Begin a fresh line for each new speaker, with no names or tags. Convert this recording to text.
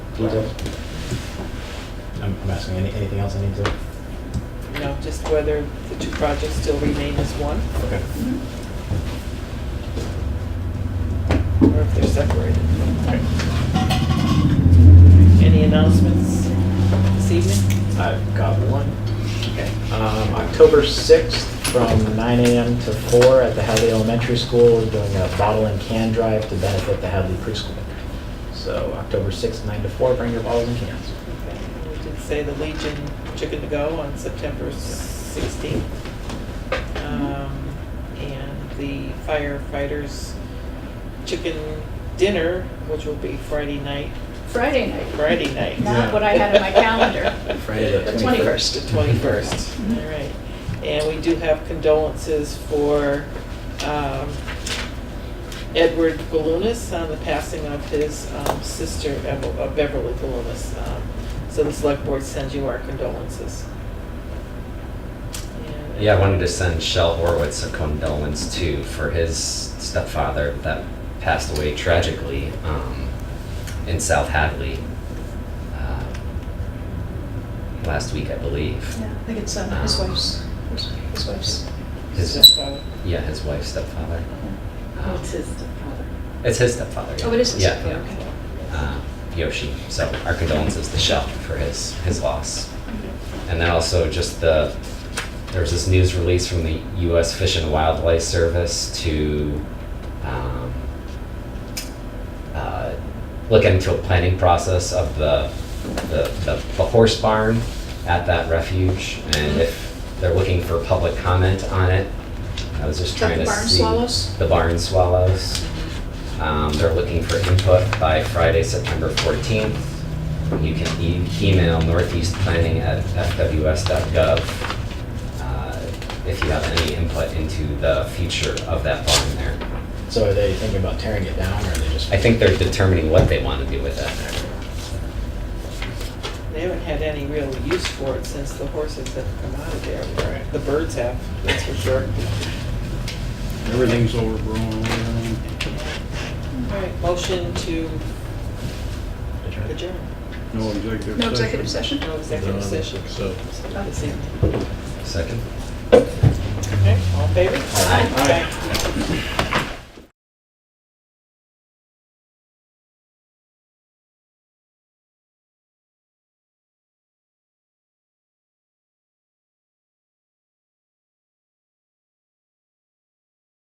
I'm I'm asking, any- anything else I need to?
You know, just whether the two projects still remain as one,
Okay.
or if they're separated.
Okay.
Any announcements this evening?
I've got one. Um, October 6th, from 9 AM to 4 at the Hadley Elementary School, we're doing a bottle and can drive to benefit the Hadley preschool. So October 6th, 9 to 4, bring your bottles and cans.
Okay, We did say the Legion Chicken to Go on September 16th. Um, And the firefighters chicken dinner, which will be Friday night,
Friday night,
Friday night.
not what I had in my calendar.
Friday
The 21st.
The 21st, all right. And we do have condolences for um, Edward Galunas on the passing of his um, sister Ev- uh, Beverly Galunas. Um, So the select board sends you our condolences. And-
Yeah, I wanted to send Shel Horowitz a condolence too for his stepfather that passed away tragically um, in South Hadley uh, last week, I believe.
Yeah, I think it's uh, his wife's, his wife's.
uh,
His,
Stepfather.
yeah, his wife's stepfather. Um,
What's his stepfather?
It's his stepfather. Yeah.
Oh, it is his
Yeah,
stepfather,
yeah. Uh, Yoshi. So our condolences to Shel for his his loss. And then also just the, there was this news release from the U.S. Fish and Wildlife Service to um, uh, look into a planning process of the, the, the the horse barn at that refuge. And if they're looking for public comment on it, I was just
Is that
trying
the
to
barn
see.
swallows?
The barn swallows. Um, They're looking for input by Friday, September 14th. You can e- email northeastplanning@fws.gov uh, if you have any input into the future of that barn there.
So are they thinking about tearing it down, or are they just?
I think they're determining what they want to do with it.
They haven't had any real use for it since the horses have come out of there.
Right.
The birds have, that's for sure.
Everything's overgrown.
All right, motion to adjourn,
No executive session.
No executive session?
no executive session.
So.
This evening.
Second?
Okay, all in favor?
Aye.
Aye.